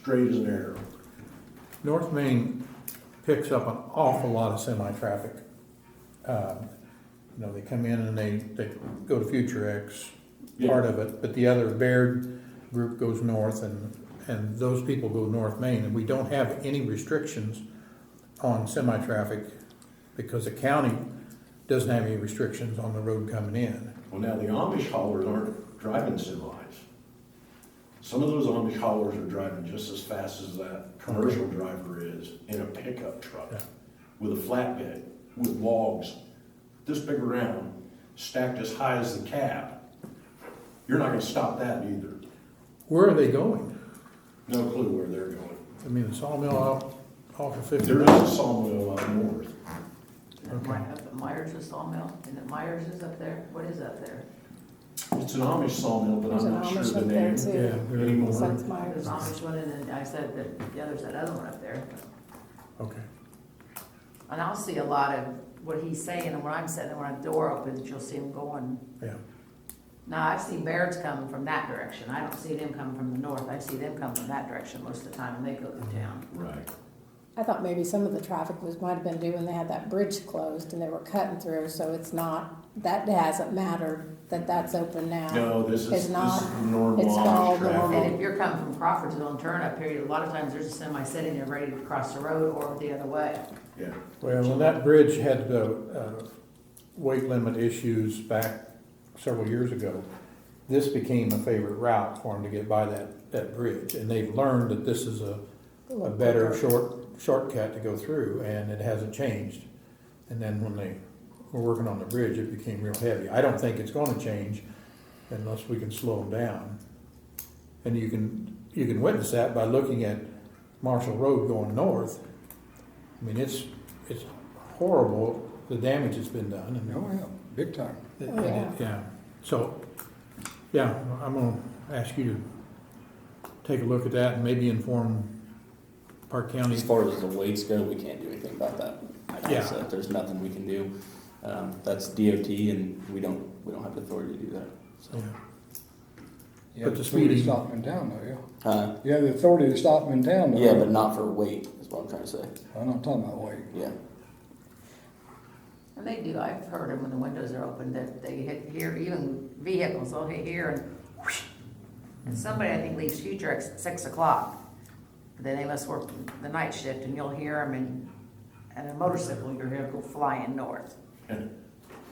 straight as an arrow. North Main picks up an awful lot of semi-traffic. Um, You know, they come in and they, they go to Future X, part of it, but the other Baird group goes north and, and those people go North Main. And we don't have any restrictions on semi-traffic because the county doesn't have any restrictions on the road coming in. Well, now the Amish haulers aren't driving semis. Some of those Amish haulers are driving just as fast as that commercial driver is in a pickup truck Yeah. with a flatbed, with logs this big around, stacked as high as the cab. You're not gonna stop that either. Where are they going? No clue where they're going. I mean, the sawmill out, off of Fifty. There is a sawmill up north. Okay. My- Up at Myers, the sawmill, and the Myers is up there, what is up there? It's an Amish sawmill, but There's I'm an not sure Amish the up there name too. Yeah, there is more. anymore. Besides Myers. There's Amish one, and then I said that the other's that other one up there. okay. And I'll see a lot of what he's saying, and when I'm sitting, when a door opens, you'll see him going. Yeah, Now, I've seen Baird's coming from that direction, I don't see them coming from the north, I see them coming from that direction most of the time when they go through town. Right. I thought maybe some of the traffic was, might have been due when they had that bridge closed and they were cutting through, so it's not, that hasn't mattered that that's open now. No, this is, this It's is not- normal it's Amish called And traffic. normal. if you're coming from Crawfordsville and turn up here, a lot of times there's a semi sitting there ready to cross the road or the other way. Yeah. well, when that bridge had the, uh, weight limit issues back several years ago, this became a favorite route for them to get by that, that bridge, and they've learned that this is a, a better short, shortcut to go through, and it hasn't changed. And then when they were working on the bridge, it became real heavy. I don't think it's gonna change unless we can slow them down. And you can, you can witness that by looking at Marshall Road going north. I mean, it's, it's horrible, the damage that's been done, and Oh, yeah, big time. it- Oh, yeah. it- Yeah, so, yeah, I'm gonna ask you to take a look at that and maybe inform Park County. As far as the weights go, we can't do anything about that. I Yeah. guess that there's nothing we can do. Um, that's DOT and we don't, we don't have the authority to do that. Yeah. So, You But have the authority to speeding- Stop them in town, though, yeah. uh, You have the authority to stop them in town, though. yeah, but not for weight is what I'm trying to say. I'm not talking about weight. Yeah. And they do, I've heard them when the windows are open, that they hit here, even vehicles, they'll hit here and whoosh. And somebody, I think, leaves future at six o'clock, then they must work the night shift, and you'll hear them, and, and a motorcycle, you'll hear go flying north. Yeah.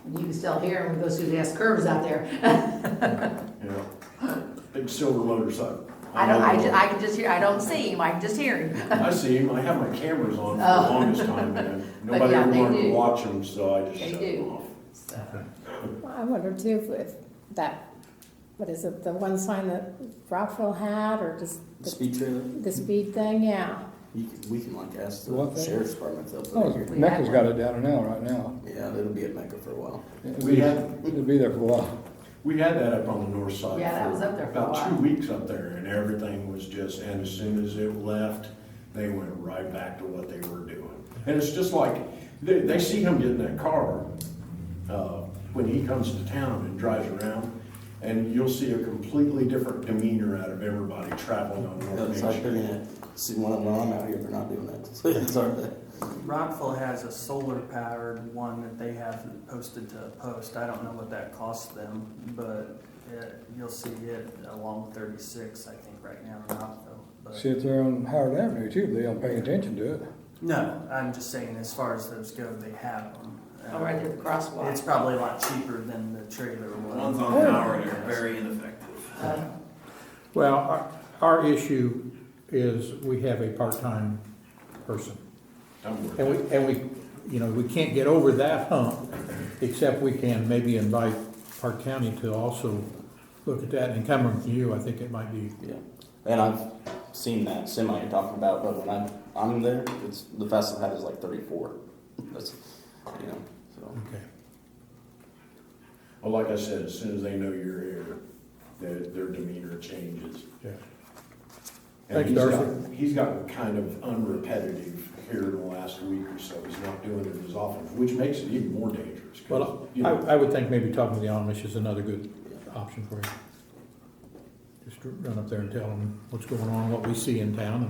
And you can still hear them, goes through the S curves out there, Yeah. Big silver motorcycle. I don't, I, know ju- him. I can just hear, I don't see him, I can just hear him. I see him, I have my cameras on for the Oh. longest time, man. Nobody yeah, ever they wanted to do. watch him, so I just They shut them do. off. So, I wonder too if- if that, what is it, the one sign that Rockville had or just The the, speed trailer, the speed thing, yeah. you can, we can like ask What the thing? sheriff's department if they'll Oh, put it here. Mecca's got it down and out right now. Yeah, it'll be at Mecca for a while. It'll We be- have- It'll be there for a while. We had that up on the north side. Yeah, that was up there for a About two while. weeks up there, and everything was just, and as soon as it left, they went right back to what they were doing. And it's just like, they, they see him get in that car, uh, when he comes to town and drives around, and you'll see a completely different demeanor out of everybody traveling on North Main It's like Street. they're gonna, see, when when I'm out here, they're not doing that. It's our thing. Rockville has a solar powered one that they have posted to a post. I don't know what that costs them, but it, you'll see it along thirty-six, I think, right now in Rockville. But, See if they're on Howard Avenue too, but they don't pay attention to it. no, I'm just saying, as far as those go, they have them. Uh, All Oh, right, the crosswalk. It's probably a lot cheaper than the trailer one. Ones on power are very ineffective. Uh, Well, our, our issue is we have a part-time person. I'm worried. And we, and we, you know, we can't get over that hump, except we can maybe invite Park County to also look at that and come from you, I think it might be, Yeah, and I've seen that semi you're talking about, but when I'm I'm there, it's the fastest I've had is like 34. That's you know, so okay. Well, like I said, as soon as they know you're here, their, their demeanor changes. Yeah. And Thank you, he's Darcy. got- He's gotten kind of unrepetitive here in the last week or so. He's not doing it as often, which makes it even more dangerous. 'cause, Well, you I, know, I would think maybe talking to the Amish is another good option for you. Just run up there and tell them what's going on, what we see in town, and